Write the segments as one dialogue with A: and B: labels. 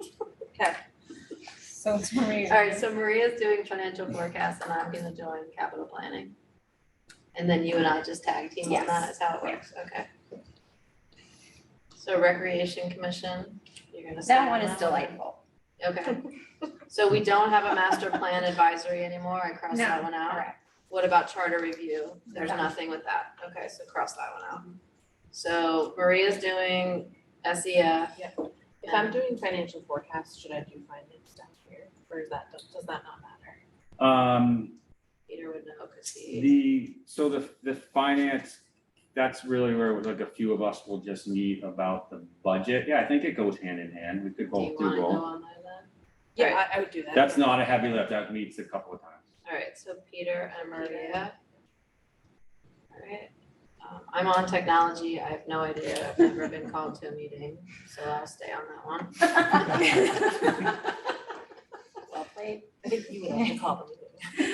A: Okay,
B: So it's Maria.
A: all right, so Maria's doing financial forecast and I'm gonna join capital planning. And then you and I just tag team on that, is how it works, okay. So recreation commission, you're gonna sign
C: That one is
A: one?
C: delightful.
A: Okay, so we don't have a master plan advisory anymore, I crossed that one out.
C: Correct.
A: What about charter review? There's
C: Done.
A: nothing with that. Okay, so cross that one out. So Maria's doing E SEF.
D: If I'm doing financial forecast, should I do finance down here, or is that, does that not matter?
E: Um,
A: Peter would know because he,
E: the, so the, the finance, that's really where like a few of us will just meet about the budget. Yeah, I think it goes hand in hand. We could
A: do you
E: both
A: wanna
E: do
A: go
E: both.
A: on there then?
D: Yeah, I, I would do that.
E: That's not a heavy lift. That meets a couple of times.
A: Alright, so Peter and Maria. Alright, um, I'm on technology. I have no idea. I've never been called to a meeting, so I'll stay on that one.
C: Well played.
D: I think you would have to call them.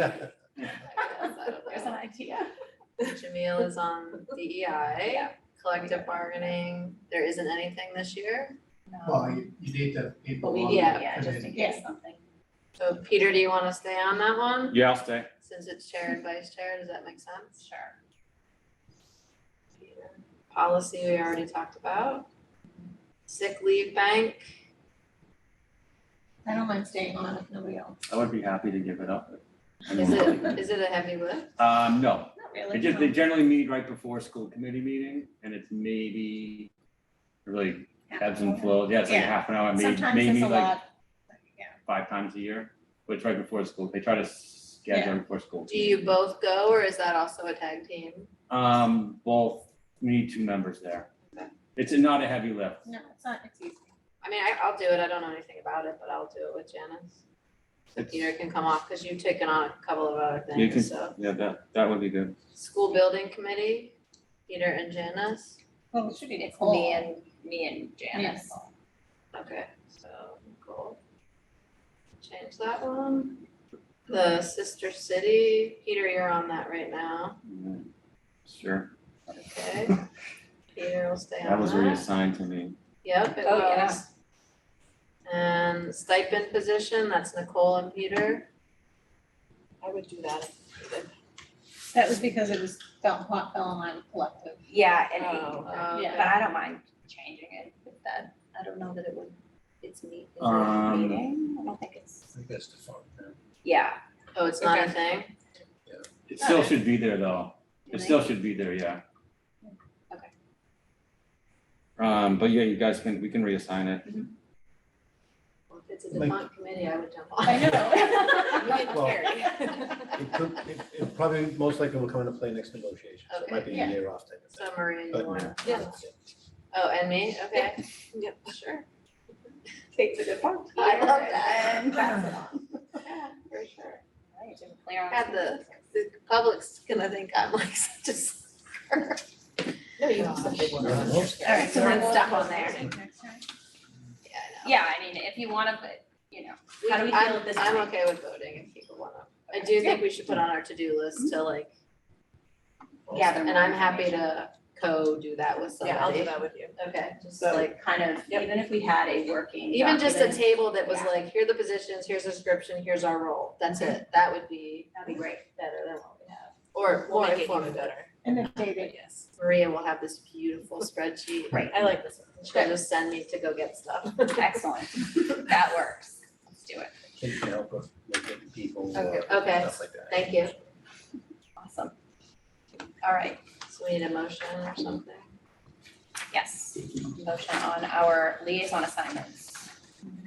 A: Outside of
C: There's
A: that.
C: an idea.
A: Jamil is on DEI,
C: Yeah.
A: collective bargaining. There isn't anything this year.
F: Well, you, you need to people
A: Well,
F: on
A: we- yeah,
F: the
C: Yeah, just in
F: committee.
C: case something.
A: So Peter, do you wanna stay on that one?
E: Yeah, I'll stay.
A: Since it's chair and vice chair, does that make sense?
C: Sure.
A: Peter. Policy we already talked about. Sick leave bank,
B: I don't mind staying on if nobody else.
E: I would be happy to give it up. I
A: is
E: mean,
A: it, is it a heavy lift?
E: Um, no,
B: Not
E: They
B: really.
E: just, they generally meet right before school committee meeting, and it's maybe really ebbs and flows, yeah, it's like
B: Yeah.
E: half an hour, maybe,
B: Sometimes it's
E: maybe
B: a
E: like
B: lot. Yeah.
E: five times a year. But it's right before school, they try to
B: Yeah.
E: schedule it before school.
A: Do you both go or is that also a tag team?
E: Um, both, we need two members there. It's not a heavy lift.
B: No, it's not, it's easy.
A: I mean, I, I'll do it. I don't know anything about it, but I'll do it with Janice. So
E: It's-
A: Peter can come off because you've taken on a couple of other
E: You can-
A: things, so.
E: Yeah, that, that would be good.
A: School building committee, Peter and Janice.
B: Well, it should be
C: It's
B: Nicole.
C: me and, me and Janice.
B: Nicole.
A: Okay, so Nicole. Change that one. The sister city, Peter, you're on that right now,
E: Mm, Sure,
A: okay? Peter will stay on that.
E: that was reassigned to me.
A: Yep, it
C: Oh, yeah.
A: was. And stipend position, that's Nicole and Peter.
D: I would do that. if needed.
B: That was because it was fell, hot fell in line with collective.
C: Yeah, and,
D: Oh,
A: Uh,
B: Yeah.
C: but I don't mind changing it with that. I don't know that it would, it's me, is it a
E: Um,
C: meeting? I don't think
F: I
C: it's,
F: think that's the fun, man.
C: yeah.
A: Oh, it's not a thing?
E: It still should be there, though. It still should be there, yeah.
C: Okay.
E: Um, but yeah, you guys can, we can reassign it.
A: Well, If it's a
F: Like-
A: defunct committee, I would jump on.
B: I
D: You
B: know.
D: can
F: Well-
D: carry.
F: It could, it, it probably, most likely will come into play next negotiation, so it might be a
B: Okay.
F: year off type of
A: So
F: thing.
A: Maria, you
F: But-
A: want?
D: Yeah.
A: Oh, and me, okay.
D: Yep.
A: Sure.
C: Kate's a good one.
A: I love that.
C: And pass it on.
A: Yeah, for sure.
C: Right, Jim, clear on.
A: Had the, the public's gonna think I'm like such a sucker.
D: No, you have some big
F: You're the
D: ones.
F: most-
C: All right, so
B: we'll-
C: then stuff on there.
A: Yeah, I know.
C: Yeah, I mean, if you wanna, but, you know, how do we
A: I'm-
C: feel at this
A: I'm
C: time?
A: okay with voting if people wanna. I do think we should put on our to-do list to like,
C: gather more
A: and I'm happy
C: information.
A: to co-do that with somebody.
D: Yeah, I'll do that with you.
A: Okay, just
C: So
A: like,
C: like kind of,
D: Yep.
C: even if we had a working
A: even just a
C: document,
A: table that was
C: Yeah.
A: like, here are the positions, here's the description, here's our role. That's
D: Mm-hmm.
A: it. That would be
C: That'd be great.
A: better than what we have. Or more
D: We'll make it even
A: informative.
D: better,
B: And then David,
D: but yes.
A: Maria will have this beautiful spreadsheet.
C: Right.
D: I like this one.
A: She'll just send me to go get stuff.
C: Excellent. That works. Let's do it.
F: Kate can help us, like, get people, uh,
A: Okay. Okay.
F: stuff like that.
A: Thank you.
C: Awesome. All right,
A: So we need a motion or something.
C: yes. Motion on our liaison assignments.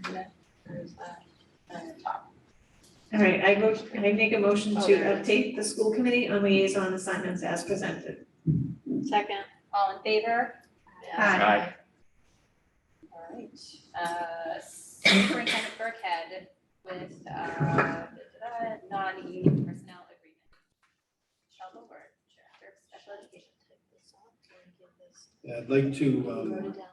A: Or is that-
G: All right, I go, I make a motion to
A: Oh, there it is.
G: update the school committee on liaison assignments as presented.
A: Second?
C: All in favor?
A: Yeah.
E: Aye.
C: All right. Uh, Superintendent Burkhead with, uh, da-da-da, non-union personnel agreement. Michelle Goldberg, Director of Special Education.
F: Yeah, I'd like to,
A: Wrote
F: um,
A: it down.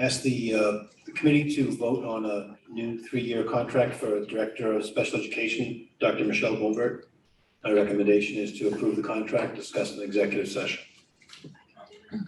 F: ask the, uh, the committee to vote on a new three-year contract for Director of Special Education, Dr. Michelle Goldberg. My recommendation is to approve the contract discussed in executive session.